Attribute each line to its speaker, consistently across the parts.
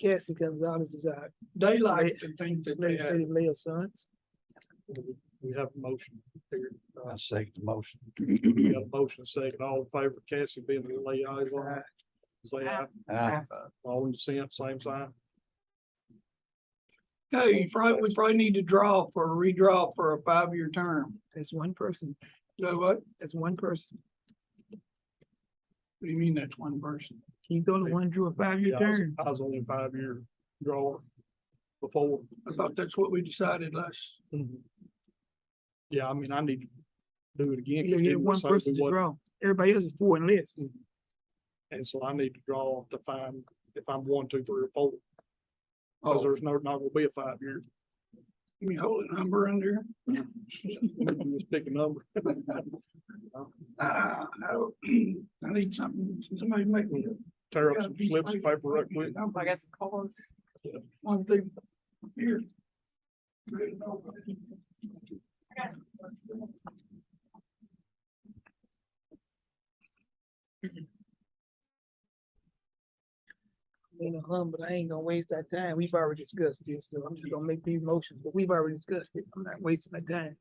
Speaker 1: Cassie Gonzalez is uh, our
Speaker 2: Daylight and think that they have,
Speaker 1: legislative mayor's son.
Speaker 2: we have a motion here. Uh,
Speaker 3: I second the motion.
Speaker 2: We got a motion second, all in favor, of Cassie being the lay eyes on it. Say aye,
Speaker 3: Aye.
Speaker 2: all in dissent, same sign.
Speaker 4: Hey, you probably, we probably need to draw for a redraw for a five-year term.
Speaker 1: That's one person.
Speaker 4: So what? What
Speaker 1: That's one person.
Speaker 4: do you mean that's one person?
Speaker 1: He's the only one drew a
Speaker 2: Yeah,
Speaker 1: five-year
Speaker 2: I was-
Speaker 1: term.
Speaker 2: I was only five-year drawer before.
Speaker 4: I thought that's what we decided last.
Speaker 2: Yeah, I mean, I need to do it again. 'cause
Speaker 1: You
Speaker 2: it
Speaker 1: get
Speaker 2: was
Speaker 1: one
Speaker 2: something we
Speaker 1: person to
Speaker 2: wasn't-
Speaker 1: draw. Everybody else is four and less.
Speaker 2: Mm. And so I need to draw to find if I'm one, two, three, or four. Cause there's no, not gonna be a five year,
Speaker 4: Give me a whole number under.
Speaker 2: you just pick a number.
Speaker 4: Uh, I don't- I need something, somebody make me. a-
Speaker 2: Tear up some slips of paper right quick.
Speaker 5: I got some cards.
Speaker 4: One thing. Here.
Speaker 1: Ain't a hum, but I ain't gonna waste that time. We've already discussed this, so I'm just gonna make these motions, but we've already discussed it. I'm not wasting my time.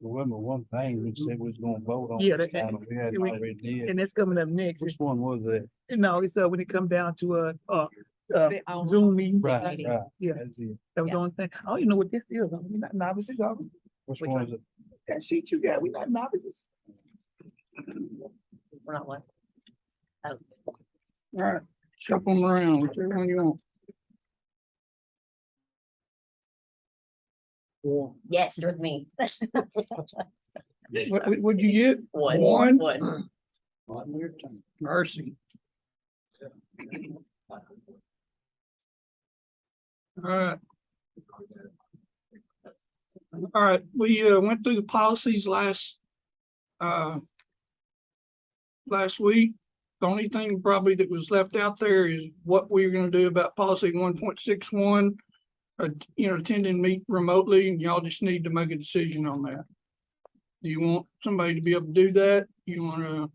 Speaker 3: Remember one thing we said we was gonna vote on.
Speaker 1: Yeah, that-
Speaker 3: this time, We had
Speaker 1: we-
Speaker 3: already did.
Speaker 1: And that's coming up next.
Speaker 3: Which one was that?
Speaker 1: And no, it's uh, when it come down to uh, uh, uh,
Speaker 5: They own-
Speaker 1: Zoom meetings.
Speaker 3: Right, right.
Speaker 1: Yeah.
Speaker 3: That's it.
Speaker 1: That was the
Speaker 5: Yeah.
Speaker 1: only thing. I don't even know what this is. I mean, We're not novices, are we?
Speaker 3: Which
Speaker 5: Which
Speaker 3: one was it?
Speaker 1: That sheet you got, we not novices.
Speaker 5: We're not like.
Speaker 4: All right, shuffle them around, whichever one you want.
Speaker 2: One.
Speaker 5: Yes, you're with me.
Speaker 4: What, what- what'd you get? One?
Speaker 5: One, one.
Speaker 4: Mercy. Alright. Alright, we uh went through the policies last. Uh. Last week, the only thing probably that was left out there is what we we're gonna do about policy one point six one. Uh, you know, attending meet remotely and y'all just need to make a decision on that. Do you want somebody to be able to do that? You wanna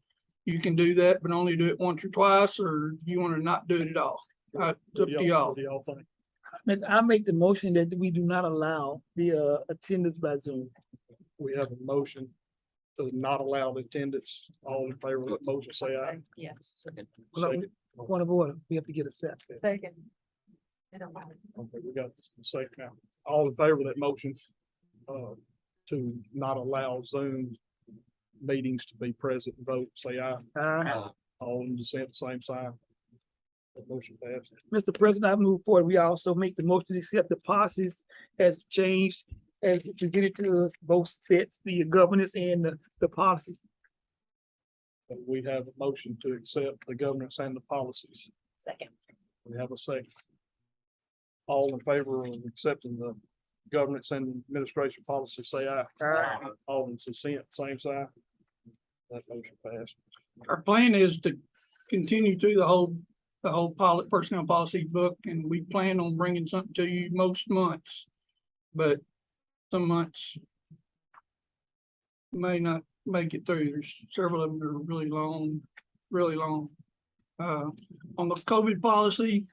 Speaker 4: you can do that, but only do it once or twice, or you wanna not do it at all? Uh, it's up to y'all.
Speaker 2: What do y'all think?
Speaker 1: Make- I make the motion that we do not allow the uh, attendance by Zoom.
Speaker 2: We have a motion to not allow the attendance, all in favor of the motion, say aye.
Speaker 5: Yes.
Speaker 1: Well,
Speaker 2: Second.
Speaker 1: Point of order, we have to get a set.
Speaker 5: Second.
Speaker 2: Okay, we got a second now. All in favor of that motion, uh, to not allow Zoom meetings to be present, vote, say aye.
Speaker 1: Uh,
Speaker 2: All in dissent, same sign. That motion passed.
Speaker 1: Mr. President, I move forward. We also make the motion to accept the policies as changed as presented to us, both sets, the governance and the, the policies.
Speaker 2: But We have a motion to accept the governance and the policies.
Speaker 5: Second.
Speaker 2: We have a second. All in favor of accepting the governance and administration policy, say aye.
Speaker 5: Aye.
Speaker 2: All in dissent, same sign. That motion passed.
Speaker 4: Our plan is to continue through the whole, the whole poli- personnel policy book, and we plan on bringing something to you most months. But some months may not make it through. There's several of them that are really long, really long. Uh, on the COVID policy,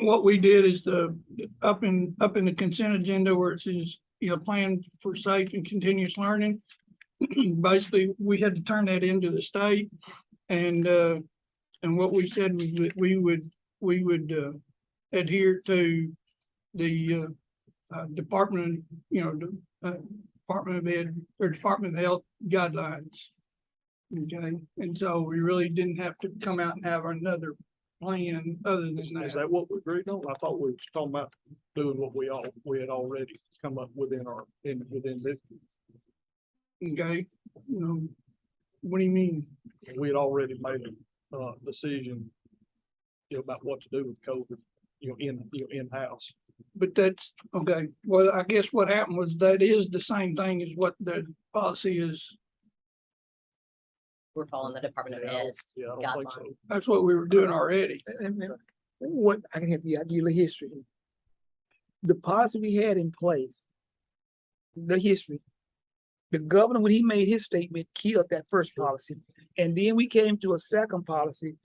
Speaker 4: what we did is the, up in, up in the consent agenda where it says, you know, plan for safe and continuous learning basically, we had to turn that into the state. And, uh, and what we said was that we would, we would, uh, adhere to the, uh, uh, Department, of you know, the, uh, Department of Ed, or Department of Health guidelines. Okay, and so we really didn't have to come out and have another plan other than
Speaker 2: Is
Speaker 4: that.
Speaker 2: that what we agreed on? I thought we were talking about doing what we all, we had already come up within our, in, within this.
Speaker 4: Okay, you know, um, what do you mean?
Speaker 2: We had already made a, uh, decision you know, about what to do with COVID, you know, in, you know, in-house.
Speaker 4: But that's, okay, well, I guess what happened was that is the same thing as what the policy is.
Speaker 5: We're following the Department of
Speaker 2: Yeah, I don't-
Speaker 5: Ed's
Speaker 2: Yeah, I don't think
Speaker 5: guidelines.
Speaker 2: so.
Speaker 4: That's what we were doing already.
Speaker 1: and- and What, I can help you, I'll give you the history. The policy we had in place, the history. The governor, when he made his statement, killed that first policy. And then we came to a second policy